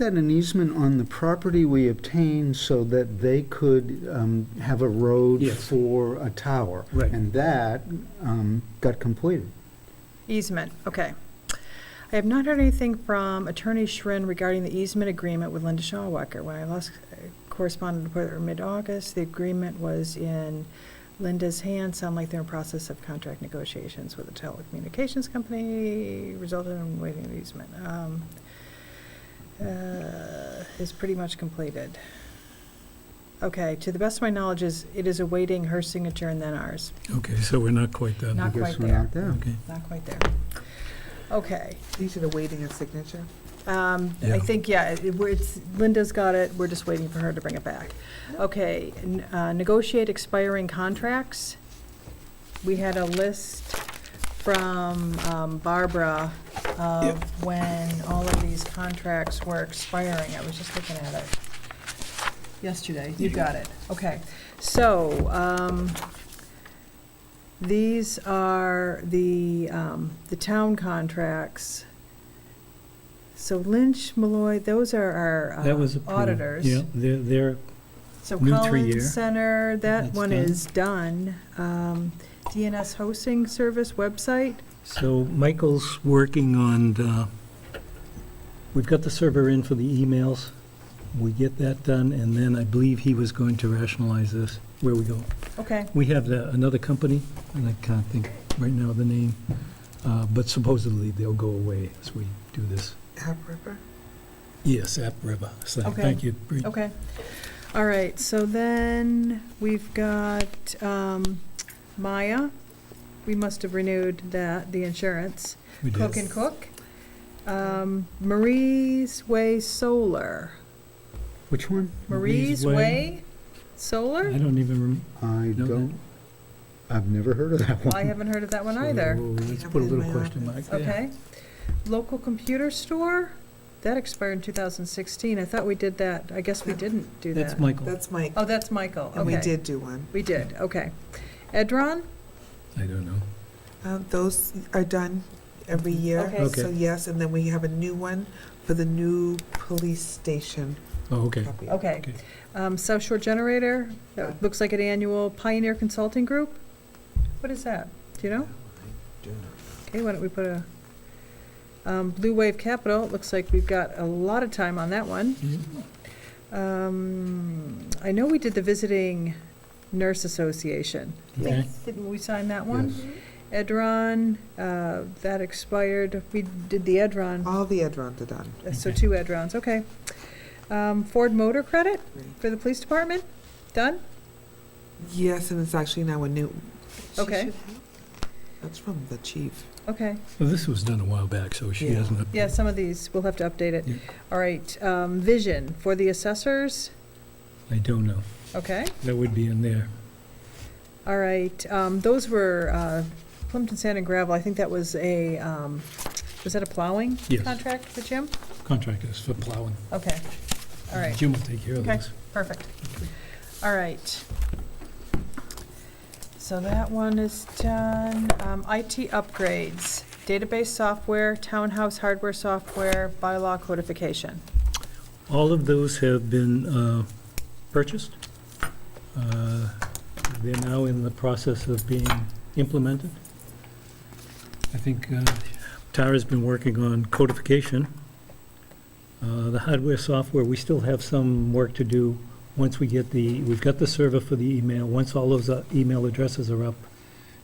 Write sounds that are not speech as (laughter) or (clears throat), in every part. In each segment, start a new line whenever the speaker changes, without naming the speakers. that an easement on the property we obtained so that they could um, have a road
Yes.
for a tower.
Right.
And that um, got completed.
Easement, okay. I have not heard anything from Attorney Schrin regarding the easement agreement with Linda Shawwacker. When I last uh, corresponded with her in mid-August, the agreement was in Linda's hands. Sound like they're in process of contract negotiations with the telecommunications company, resulted in waiting the easement. Um, uh, Is pretty much completed. Okay, to the best of my knowledge, is, it is awaiting her signature and then ours.
Okay, so we're not quite done.
Not
I guess
quite
we're
there.
not there.
Okay,
Not quite there. Okay.
These are the waiting and signature.
Um,
Yeah.
I think, yeah, it- we're- it's, Linda's got it, we're just waiting for her to bring it back. Okay, n- uh, negotiate expiring contracts. We had a list from um, Barbara of when all of these contracts were expiring. I was just looking at it yesterday. You got it. Okay. So, um, these are the, um, the town contracts. So Lynch, Malloy, those are our
that was
uh,
approved.
auditors.
Yeah, they're, they're,
So
New three-year.
Collins Center, that
That's
one is done. Um, DNS hosting service website,
so Michael's working on, the- we've got the server in for the emails. We get that done, and then I believe he was going to rationalize this, where we go.
okay.
We have the- another company, and I can't think right now of the name, uh, but supposedly they'll go away as we do this.
App Ripper.
Yes, App River. So,
Okay.
thank you. Bree.
Okay. All right, so then we've got um, Maya. We must have renewed that, the insurance.
We did.
Cook and Cook. Um, Marie's Way Solar.
Which one?
Marie's
Marie's
Way
Way? I
Solar?
don't even remember.
I
No.
don't, I've never heard of that one.
I haven't heard of that one either.
Let's put a little question mark there.
Okay. Local Computer Store? That expired in 2016. I thought we did that. I guess we didn't do
That's
that.
Michael.
That's Mike.
Oh, that's Michael.
And we
Okay.
did do one.
We did, okay. Edron?
I don't know.
Um, Those are done every year.
Okay.
Okay.
So yes, and then we have a new one for the new police station.
Oh, okay.
copy.
Okay.
Okay.
Um, South Shore Generator, that looks like an annual Pioneer Consulting Group? What is that? Do you know? Okay, why don't we put a, um, Blue Wave Capital, it looks like we've got a lot of time on that one. Um, I know we did the Visiting Nurse Association.
Okay.
Didn't we sign that one? Edron, uh, that expired. We did the Edron, uh,
All the Edrons are done.
so
Okay.
two Edrons, okay. Um, Ford Motor Credit?
Great.
for the police department? Done?
Yes, and it's actually now a new. she
Okay.
should have- That's from the chief.
Okay,
Well, this was done a while back, so she
Yeah.
hasn't.
yeah, some of these, we'll have to update it.
Yeah.
All right, um, vision for the assessors,
I don't know.
okay,
That would be in there.
all right, um, those were, uh, Plimpton Sand and Gravel, I think that was a, um, was that a plowing
Yes,
contract for Jim?
contractors for plowing.
Okay, all right.
Jim will take care of
Okay.
this.
Perfect. All right. So that one is done. Um, IT upgrades, database software, townhouse hardware software, bylaw codification.
All of those have been uh, purchased. Uh, They're now in the process of being implemented. I think uh, Tara's been working on codification. Uh, The hardware, software, we still have some work to do once we get the, we've got the server for the email. Once all those uh, email addresses are up,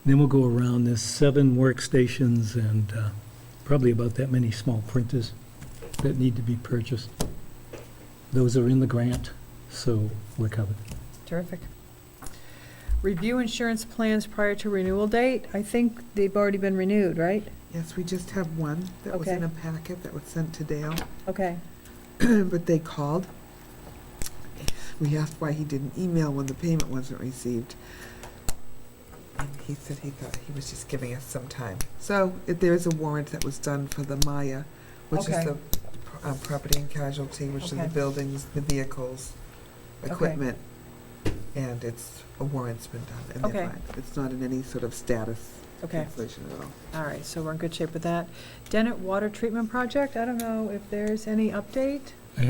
then we'll go around. There's seven workstations and uh, probably about that many small printers that need to be purchased. Those are in the grant, so we're covered.
Terrific. Review insurance plans prior to renewal date. I think they've already been renewed, right?
Yes, we just have one that was
Okay.
in a packet that was sent to Dale,
Okay.
(clears throat) but they called. We asked why he didn't email when the payment wasn't received. And he said he thought he was just giving us some time. So if there is a warrant that was done for the Maya, which is
Okay.
the uh, property and casualty, which are
Okay.
the buildings, the vehicles,
Okay.
equipment. And it's, a warrant's been done and they're
Okay.
fine. It's not in any sort of status
Okay,
cancellation at all.
all right, so we're in good shape with that. Dennett Water Treatment Project, I don't know if there's any update?